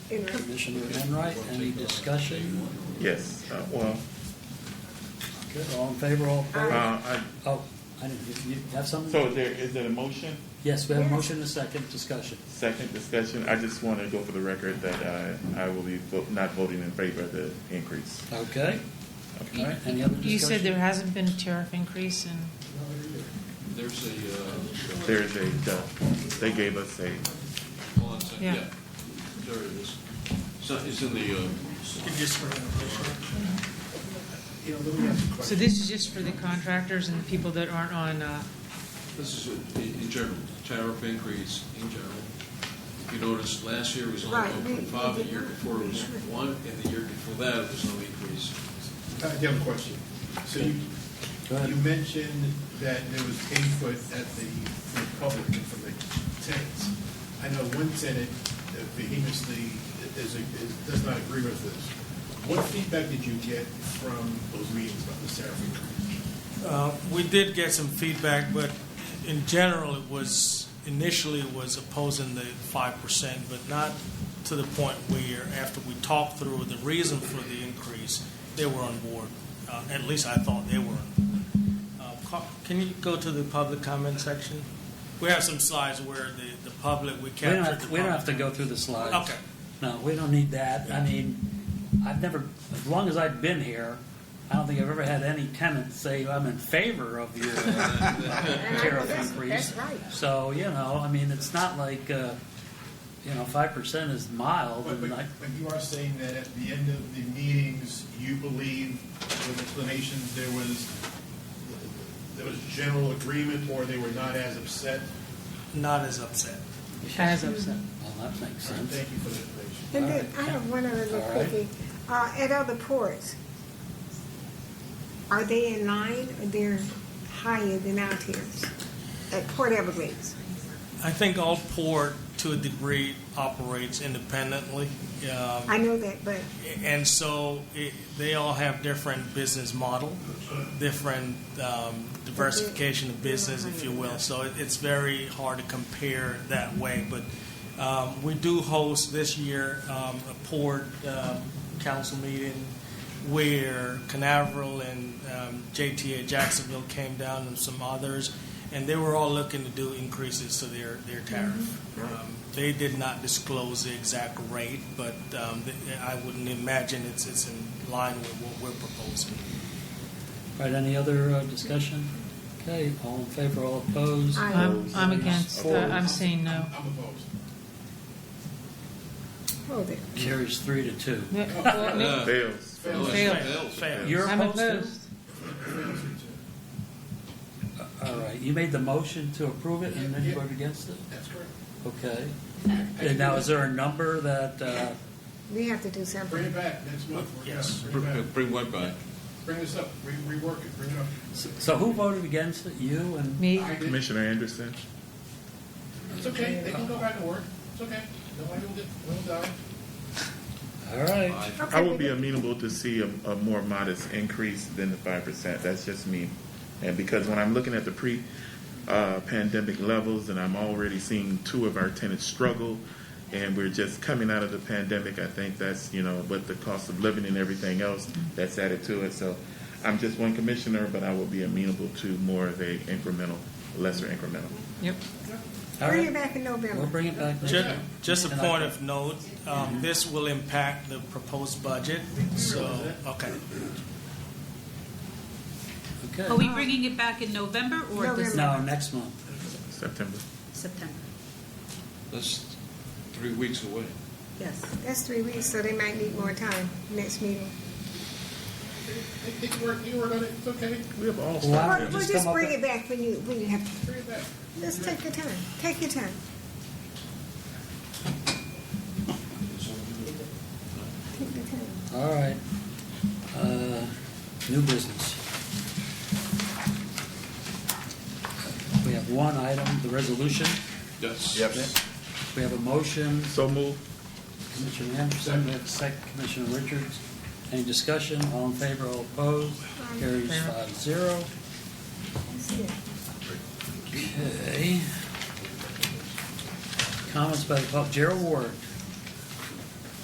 Commissioner Enright, any discussion? Yes, uh, well, Good, all in favor, all uh, opposed? I- Oh, I didn't, you you have something? so is there, is there a motion? Yes, we have a motion and a second discussion. Second discussion, I just want to go for the record that I, I will be vo- not voting in favor of the increase. Okay, all right, any other discussion? You said there hasn't been a tariff increase in, There's a, uh, There's a, uh, they gave us a, hold on a second. Yeah. yeah, there it is. So it's in the, uh, so this is just for the contractors and the people that aren't on, uh, this is in in general, tariff increase in general. If you notice, last year was only Right, one we- point five, we the year did not- before it we was never- one, and the year before that, it was no increase. I have a question. So you, Go ahead. you mentioned that there was input at the Republican from the tenants. I know one tenant vehemently is, is, does not agree with this. What feedback did you get from those meetings about the tariff increase? Uh, We did get some feedback, but in general, it was, initially it was opposing the five percent, but not to the point where, after we talked through the reason for the increase, they were on board. Uh, At least I thought they were. on board. Uh, co- Can you go to the public comment section? We have some slides where the, the public, We we don't captured the have, public. we don't have to go through the slides. Okay. No, we don't need that. I mean, I've never, as long as I've been here, I don't think I've ever had any tenant say, I'm in favor of your uh, tariff That's- increase. that's right. So, you know, I mean, it's not like, uh, you know, five percent is mild But, but, and I, but you are saying that at the end of the meetings, you believe with explanations, there was, there was general agreement or they were not as upset? Not as upset. as upset. well, that makes sense. Thank you for the explanation. And then, I have one other little All right. quickie. Uh, at other ports, are they in line or they're higher than out here? At Port Everglades? I think all port, to a degree, operates independently. Um, I know that, but and so it, they all have different business model, different um, diversification of business, if you will. So it, it's very hard to compare that way. But um, we do host this year um, a port um, council meeting where Canaveral and um, JTA Jacksonville came down and some others, and they were all looking to do increases to their, their tariff. Um, they did not disclose the exact rate, but um, th- I wouldn't imagine it's, it's in line with what we're proposing. All right, any other uh, discussion? Okay, all in favor, all opposed? Aye. I'm, I'm against, uh, I'm saying no. I'm opposed. hold it. Carries three to two. Well, Uh, fails. no, it's Fail. fails. Fail. You're I'm opposed to? opposed. All right, you made the motion to approve it and then you Yeah. voted against it? That's correct. Okay. And now, is there a number that, uh, We have to do Bring it something. back next month. Work it out. Yes. Bring it Br- back. Bring what back? Bring this up, Re- rework it, bring it up. so so who voted against it? You and, Me, I did. Commissioner Anderson? It's okay, they can go back to work, it's okay. Nobody will get, will die. all right. Aye. Okay, I would be we- amenable to see a, a more modest increase than the five percent. That's just me. And because when I'm looking at the pre, uh, pandemic levels and I'm already seeing two of our tenants struggle and we're just coming out of the pandemic, I think that's, you know, with the cost of living and everything else that's added to it. So I'm just one commissioner, but I will be amenable to more of a incremental, lesser incremental. yep. All Bring it right, back in we'll November. bring it back next Ju- time. Just a And I- point of note, um, this will impact the proposed budget, so, okay. Oh, Are we Okay. bringing it back in November or November. December? No, next month. September. September? That's three weeks away. Yes, that's three weeks, so they might need more time next meeting. They- They can work, you work on it, it's okay, We have all. Well, Or I- or just just come up bring with- it back when you, when you have, bring it back. just take your time, take your time. Take your time. All right. Uh, New business. We have one item, the resolution. Yes. We have a motion, So move. Commissioner Anderson, we have a second, Commissioner Richards. Any discussion? All in favor, all opposed? Carries Favor. five zero. That's it. Okay. Comments by the public. Gerald Ward.